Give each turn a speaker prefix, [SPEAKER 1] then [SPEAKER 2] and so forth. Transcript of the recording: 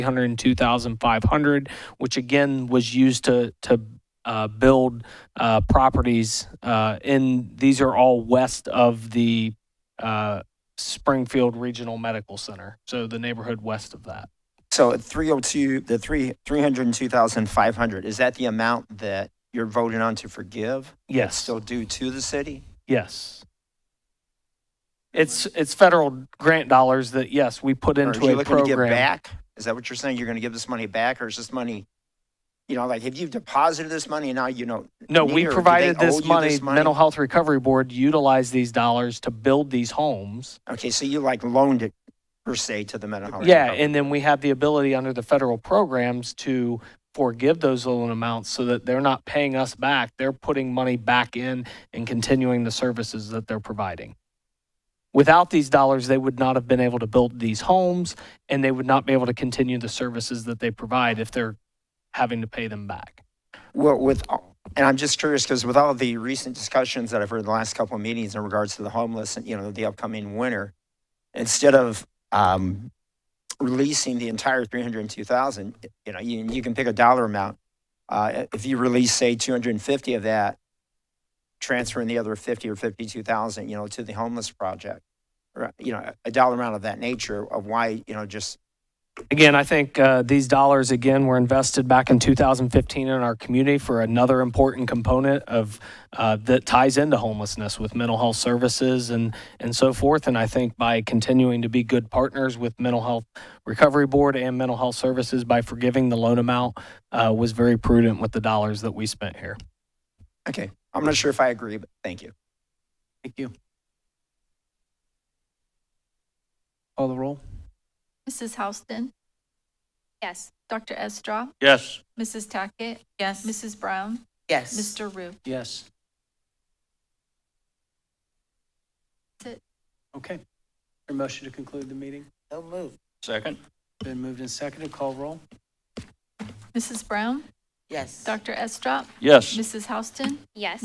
[SPEAKER 1] 102,500, which again was used to, to uh, build uh, properties. uh, In, these are all west of the uh, Springfield Regional Medical Center, so the neighborhood west of that.
[SPEAKER 2] So at 302, the three, 302,500, is that the amount that you're voting on to forgive?
[SPEAKER 1] Yes.
[SPEAKER 2] Still due to the city?
[SPEAKER 1] Yes. It's, it's federal grant dollars that, yes, we put
[SPEAKER 2] Or
[SPEAKER 1] into
[SPEAKER 2] Are you
[SPEAKER 1] a
[SPEAKER 2] looking to give
[SPEAKER 1] program.
[SPEAKER 2] back? Is that what you're saying? You're going to give this money back or is this money, you know, like if you've deposited this money and now you know,
[SPEAKER 1] No, we
[SPEAKER 2] Neither. Do they
[SPEAKER 1] provided
[SPEAKER 2] owe you
[SPEAKER 1] this
[SPEAKER 2] this
[SPEAKER 1] money,
[SPEAKER 2] money?
[SPEAKER 1] Mental Health Recovery Board utilized these dollars to build these homes.
[SPEAKER 2] okay, so you like loaned it per se to the mental health.
[SPEAKER 1] Yeah,
[SPEAKER 2] company.
[SPEAKER 1] and then we have the ability under the federal programs to forgive those loan amounts so that they're not paying us back. They're putting money back in and continuing the services that they're providing. Without these dollars, they would not have been able to build these homes and they would not be able to continue the services that they provide if they're having to pay them back.
[SPEAKER 2] Well, with, all- and I'm just curious because with all the recent discussions that I've heard in the last couple of meetings in regards to the homeless and, you know, the upcoming winter, instead of um, releasing the entire 302,000, you know, you, you can pick a dollar amount. Uh, if you release, say, 250 of that, transferring the other 50 or 52,000, you know, to the homeless project, or, you know, a dollar amount of that nature of why, you know, just
[SPEAKER 1] Again, I think uh, these dollars, again, were invested back in 2015 in our community for another important component of, uh, that ties into homelessness with mental health services and, and so forth. And I think by continuing to be good partners with Mental Health Recovery Board and Mental Health Services, by forgiving the loan amount, uh, was very prudent with the dollars that we spent here.
[SPEAKER 2] Okay, I'm not sure if I agree, but thank you.
[SPEAKER 1] Thank you. Call the roll?
[SPEAKER 3] Mrs. Houston? Yes. Dr. Estra?
[SPEAKER 4] Yes.
[SPEAKER 3] Mrs. Tackett?
[SPEAKER 5] Yes.
[SPEAKER 3] Mrs. Brown?
[SPEAKER 5] Yes.
[SPEAKER 3] Mr. Rue?
[SPEAKER 1] Yes.
[SPEAKER 3] That's it.
[SPEAKER 1] Okay. Your motion to conclude the meeting?
[SPEAKER 5] So moved.
[SPEAKER 4] Second?
[SPEAKER 1] Been moved and seconded, call roll?
[SPEAKER 3] Mrs. Brown?
[SPEAKER 5] Yes.
[SPEAKER 3] Dr. Estra?
[SPEAKER 4] Yes.
[SPEAKER 3] Mrs. Houston?
[SPEAKER 6] Yes.